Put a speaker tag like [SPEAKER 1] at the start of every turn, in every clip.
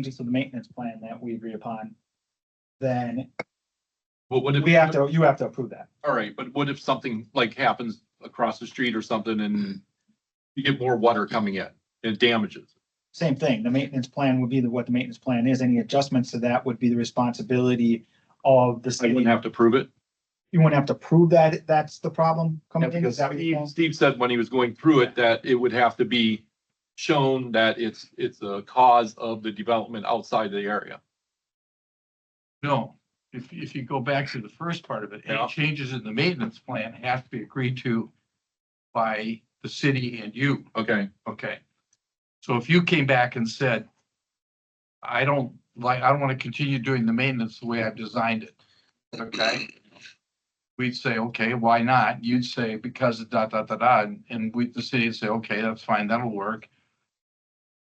[SPEAKER 1] changes to the maintenance plan that we agree upon, then
[SPEAKER 2] Well, what if?
[SPEAKER 1] we have to, you have to approve that.
[SPEAKER 2] All right, but what if something like happens across the street or something and you get more water coming in and damages?
[SPEAKER 1] Same thing, the maintenance plan would be the, what the maintenance plan is, any adjustments to that would be the responsibility of the
[SPEAKER 2] I
[SPEAKER 1] city.
[SPEAKER 2] wouldn't have to prove it.
[SPEAKER 1] You wouldn't have to prove that, that's the problem
[SPEAKER 2] Yeah,
[SPEAKER 1] coming in, is
[SPEAKER 2] Because
[SPEAKER 1] that what you're
[SPEAKER 2] Steve,
[SPEAKER 1] saying?
[SPEAKER 2] Steve said when he was going through it, that it would have to be shown that it's, it's a cause of the development outside the area.
[SPEAKER 3] No, if, if you go back to the first part of it,
[SPEAKER 2] Yeah.
[SPEAKER 3] any changes in the maintenance plan have to be agreed to by the city and you,
[SPEAKER 2] Okay,
[SPEAKER 3] okay? So if you came back and said, I don't like, I don't want to continue doing the maintenance the way I've designed it, okay? We'd say, okay, why not? You'd say, because of da, da, da, da, and- and we, the city would say, okay, that's fine, that'll work.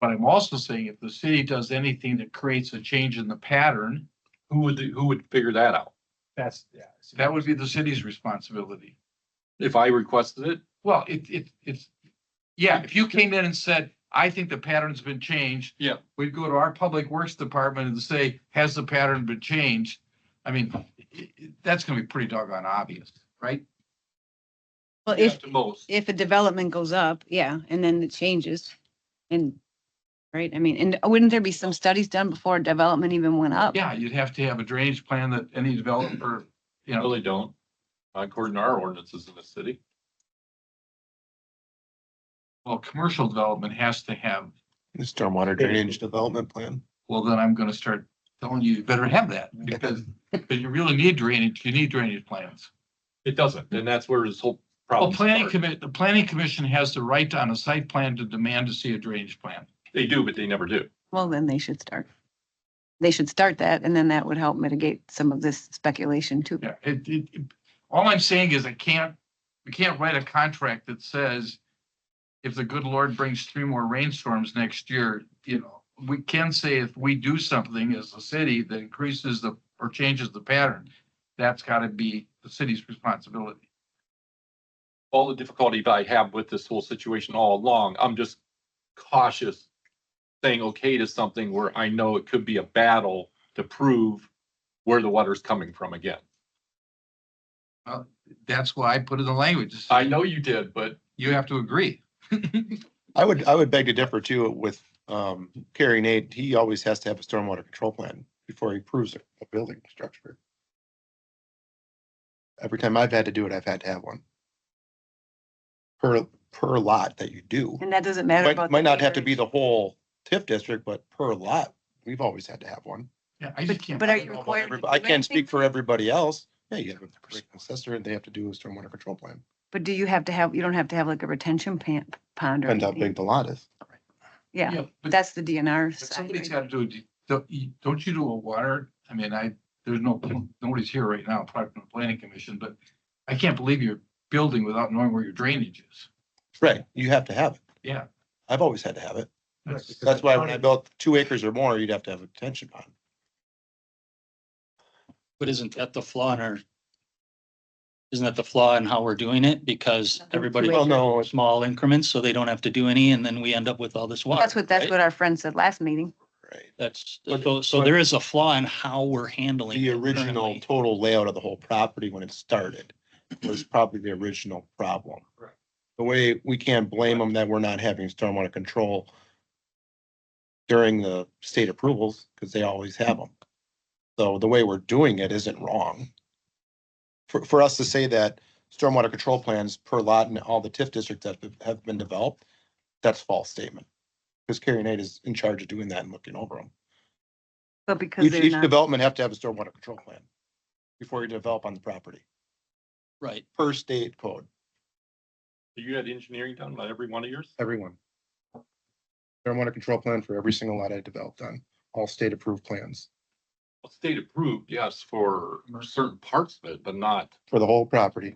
[SPEAKER 3] But I'm also saying if the city does anything that creates a change in the pattern,
[SPEAKER 2] who would, who would figure that out?
[SPEAKER 1] That's, yeah.
[SPEAKER 3] That would be the city's responsibility.
[SPEAKER 2] If I requested it?
[SPEAKER 3] Well, it, it, it's, yeah, if you came in and said, I think the pattern's been changed.
[SPEAKER 2] Yeah.
[SPEAKER 3] We'd go to our public works department and say, has the pattern been changed? I mean, i- i- that's gonna be pretty doggone obvious, right?
[SPEAKER 4] Well, if,
[SPEAKER 2] To most.
[SPEAKER 4] if a development goes up, yeah, and then it changes and, right, I mean, and wouldn't there be some studies done before development even went up?
[SPEAKER 3] Yeah, you'd have to have a drainage plan that any developer, you know,
[SPEAKER 2] Really don't. According to our ordinances in the city.
[SPEAKER 3] well, commercial development has to have,
[SPEAKER 5] The Stormwater drainage development plan.
[SPEAKER 3] well, then I'm gonna start telling you, you better have that because, because you really need drainage, you need drainage plans.
[SPEAKER 2] It doesn't, and that's where this whole
[SPEAKER 3] Well,
[SPEAKER 2] problem
[SPEAKER 3] planning
[SPEAKER 2] started.
[SPEAKER 3] commit, the planning commission has the right on a site plan to demand to see a drainage plan.
[SPEAKER 2] They do, but they never do.
[SPEAKER 4] Well, then they should start. They should start that and then that would help mitigate some of this speculation too.
[SPEAKER 3] Yeah, it, it, it- all I'm saying is I can't, we can't write a contract that says if the good Lord brings three more rainstorms next year, you know, we can say if we do something as a city that increases the, or changes the pattern, that's gotta be the city's responsibility.
[SPEAKER 2] all the difficulty that I have with this whole situation all along, I'm just cautious saying okay to something where I know it could be a battle to prove where the water's coming from again.
[SPEAKER 3] That's why I put in the language.
[SPEAKER 2] I know you did, but
[SPEAKER 3] You have to agree.
[SPEAKER 5] I would, I would beg to differ too with um Kerry Nate. He always has to have a stormwater control plan before he approves a a building structure. Every time I've had to do it, I've had to have one. Per, per lot that you do.
[SPEAKER 4] And that doesn't matter
[SPEAKER 5] Might,
[SPEAKER 4] about.
[SPEAKER 5] might not have to be the whole TIF district, but per lot, we've always had to have one.
[SPEAKER 3] Yeah, I just can't.
[SPEAKER 4] But are you
[SPEAKER 5] I don't know about
[SPEAKER 4] required to
[SPEAKER 5] everybody-
[SPEAKER 4] do
[SPEAKER 5] I can't
[SPEAKER 4] anything?
[SPEAKER 5] speak for everybody else. Yeah, you have a assessor and they have to do a stormwater control plan.
[SPEAKER 4] But do you have to have, you don't have to have like a retention pan- pond or
[SPEAKER 5] Depends how
[SPEAKER 4] anything?
[SPEAKER 5] big the lot is.
[SPEAKER 4] Yeah,
[SPEAKER 3] but-
[SPEAKER 4] that's the DNR
[SPEAKER 3] But
[SPEAKER 4] side.
[SPEAKER 3] Somebody's
[SPEAKER 4] right?
[SPEAKER 3] got to do, a de- don't you, don't you do a water, I mean, I, there's no, nobody's here right now, probably from the planning commission, but I can't believe you're building without knowing where your drainage is.
[SPEAKER 5] Right, you have to have it.
[SPEAKER 3] Yeah.
[SPEAKER 5] I've always had to have it.
[SPEAKER 3] That's-
[SPEAKER 5] That's why when I built two acres or more, you'd have to have a detention pond.
[SPEAKER 6] But isn't that the flaw in our? Isn't that the flaw in how we're doing it? Because
[SPEAKER 4] Nothing to
[SPEAKER 6] everybody,
[SPEAKER 4] it.
[SPEAKER 5] Well, no,
[SPEAKER 6] with
[SPEAKER 5] it's-
[SPEAKER 6] small increments, so they don't have to do any, and then we end up with all this water.
[SPEAKER 4] That's what, that's
[SPEAKER 5] right?
[SPEAKER 4] what our friend said last meeting.
[SPEAKER 5] right.
[SPEAKER 6] That's,
[SPEAKER 5] But-
[SPEAKER 6] so, so
[SPEAKER 5] but-
[SPEAKER 6] there is a flaw in how we're handling.
[SPEAKER 5] The
[SPEAKER 6] it
[SPEAKER 5] original
[SPEAKER 6] currently.
[SPEAKER 5] total layout of the whole property when it started was probably the original problem.
[SPEAKER 3] Right.
[SPEAKER 5] The way, we can't blame them that we're not having stormwater control during the state approvals, because they always have them. So the way we're doing it isn't wrong. For, for us to say that stormwater control plans per lot in all the TIF districts that have- have been developed, that's false statement. Because Carrie Nate is in charge of doing that and looking over them.
[SPEAKER 4] But because
[SPEAKER 5] Each,
[SPEAKER 4] they're
[SPEAKER 5] each
[SPEAKER 4] not,
[SPEAKER 5] development have to have a stormwater control plan before you develop on the property,
[SPEAKER 6] Right,
[SPEAKER 5] per state code,
[SPEAKER 2] you had engineering done by every one of yours?
[SPEAKER 5] everyone. Stormwater control plan for every single lot I developed on, all state approved plans
[SPEAKER 2] Well, State approved, yes, for certain parts of it, but not,
[SPEAKER 5] for the whole property.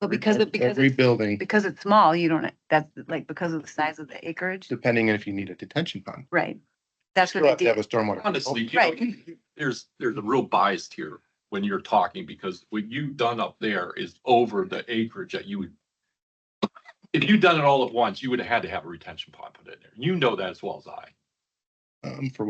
[SPEAKER 4] but because of, because
[SPEAKER 5] Every
[SPEAKER 4] it's,
[SPEAKER 5] building,
[SPEAKER 4] because it's small, you don't, that's like because of the size of the acreage,
[SPEAKER 5] depending on if you need a detention pond.
[SPEAKER 4] right? That's
[SPEAKER 5] You have
[SPEAKER 4] what
[SPEAKER 5] to
[SPEAKER 4] they
[SPEAKER 5] have
[SPEAKER 4] did.
[SPEAKER 5] a stormwater. control
[SPEAKER 2] honestly, you know,
[SPEAKER 4] Right.
[SPEAKER 2] there's, there's a real bias here when you're talking because what you've done up there is over the acreage that you would. If you'd done it all at once, you would have had to have a retention pond put in there. You know that as well as I.
[SPEAKER 5] plan, Um, for